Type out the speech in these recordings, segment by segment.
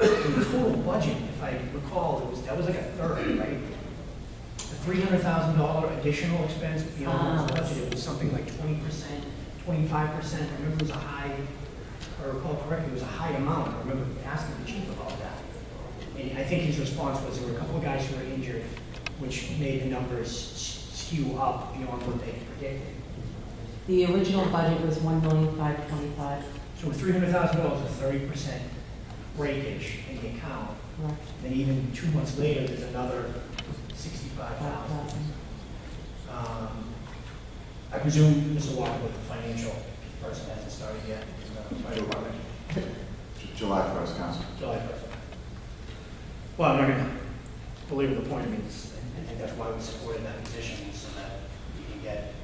of the total budget, if I recall, it was, that was like a third, right? The three hundred thousand dollar additional expense beyond what was budgeted was something like twenty percent, twenty-five percent, I remember it was a high, if I recall correctly, it was a high amount, I remember asking the chief about that. And I think his response was there were a couple of guys who were injured, which made the numbers s- skew up beyond what they predicted. The original budget was one million five twenty-five, So with three hundred thousand dollars, a thirty percent breakage in the account, correct? Then even two months later, there's another Five sixty-five thousand. Um, thousand. I presume Mr. Walker, with the financial person hasn't started yet, he's not a fire department, July first, Council. July first. Well, I'm not gonna belabor the point, I mean, it's- I think that's why we supported that position, so that you can get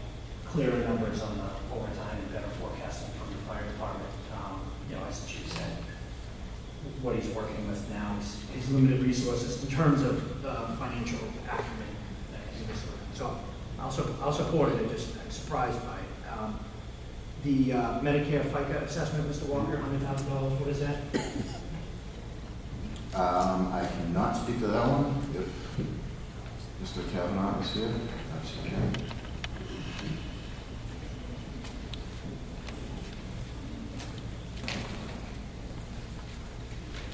clearer numbers on the overtime and better forecasting from the fire department. Um, You know, as the chief said, what he's working with now is his limited resources in terms of uh, financial acumen. that he was sort of- So I'll, su- I'll support it, I just, I'm surprised by it. Um, The uh, Medicare FICA assessment, Mr. Walker, hundred thousand dollars, what is that? Um, I cannot speak to that one. If Mr. Kavanaugh is here, perhaps he can.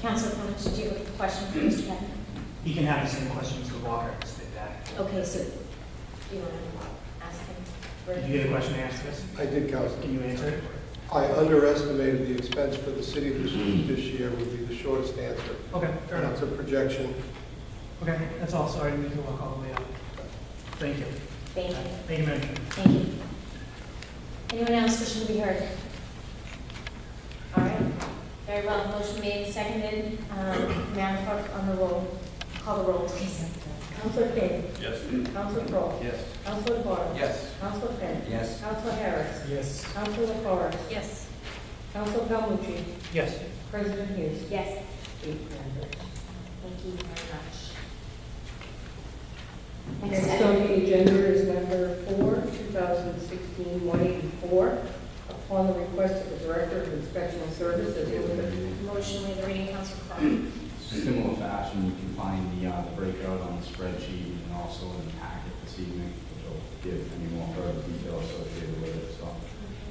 Council Fawkes, did you have a question for Mr. Beck? He can have the same question as the Walker, just did that. Okay, so you want to ask him? Did you get a question to ask us? I did, Counselor. Can you answer it? I underestimated the expense for the city this, this year would be the shortest answer. Okay, fair And enough. it's a projection. Okay, that's all, sorry, I didn't mean to walk all the way up. Thank you. Thank you, Thank you, Madam Chair. thank you. Anyone else wishing to be heard? All right, very well, motion made, seconded. Um, Madam Clerk, on the roll, call the roll, please. Council Finn. Yes. Council Crowe. Yes. Council Vaughn. Yes. Council Finn. Yes. Council Harris. Yes. Council LaFors. Yes. Council Calmucci. Yes. President Hughes. Yes. Eight members. Thank you very much. Next on the agenda is number four, 2016-184, upon the request of the Director of Inspection Services, move Motion with the reading, Council Crowe. Similar fashion, you can find the, uh, the breakout on the spreadsheet and also in the packet this evening, which will give any more further detail associated with it, so.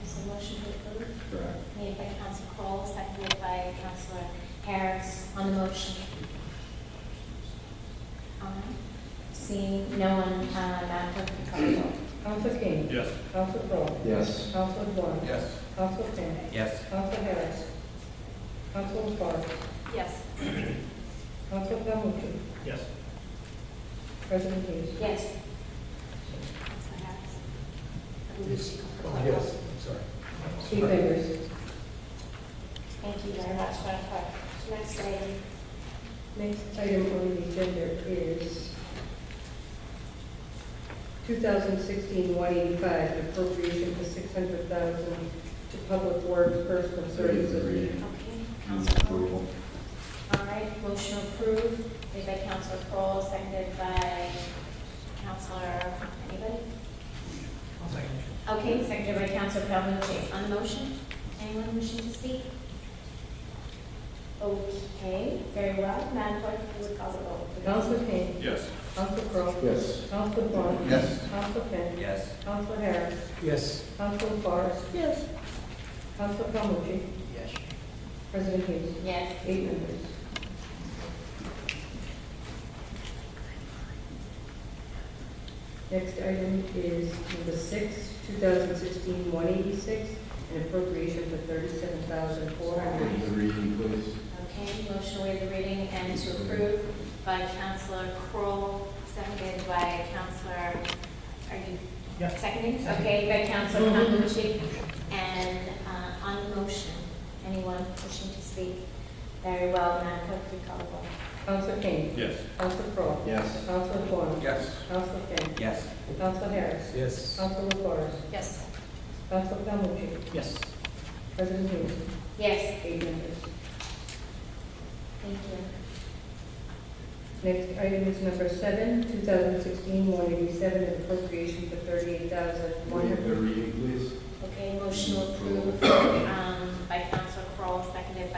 So motion to approve, Correct. made by Council Crowell, seconded by Councilor Harris on the motion. All right. Seeing no one, uh, Madam Clerk, can you call the roll? Council King. Yes. Council Crowe. Yes. Council Vaughn. Yes. Council Finn. Yes. Council Harris. Council LaFars. Yes. Council Calmucci. Yes. President Hughes. Yes. Councilor Harris. I believe she called the roll. Yes, I'm sorry. Chief Biggers. Thank you very much, Madam Clerk. Next item. Next item on the agenda is 2016-185, appropriation for 600000 to Public Works Personal Services. Reading. Okay, Hmm. Move Council Crowell. approval. All right, motion approved, made by Counselor Kroll, seconded by Counselor, anybody? I'll second it. Okay, seconded by Counselor Calhoun. On the motion, anyone wishing to speak? Okay, very well. Madam Clerk, please call the roll. Council Kane. Yes. Council Crowe. Yes. Council Vaughn. Yes. Council Finn. Yes. Council Harris. Yes. Council LaFars. Yes. Council Calhoun. Yes. President Hughes. Yes. Eight members. Next item is number six, 2016-186, an appropriation for $37,400. Move the reading, please. Okay, motion to waive the reading and to approve by Counselor Kroll, seconded by Counselor, are you Yeah. seconding? Okay, by Counselor Calhoun. And uh, on the motion, anyone wishing to speak? Very well, Madam Clerk, please call the roll. Counsel Kane. Yes. Counsel Crowe. Yes. Counsel Vaughn. Yes. Counsel Finn. Yes. Counsel Harris. Yes. Counsel LaFars. Yes. Counsel Calhoun. Yes. President Hughes. Yes, Eight members. thank you. Next item is number seven, 2016-187, an appropriation for Move the $38,100. reading, please. Okay, motion to approve um, by Coun-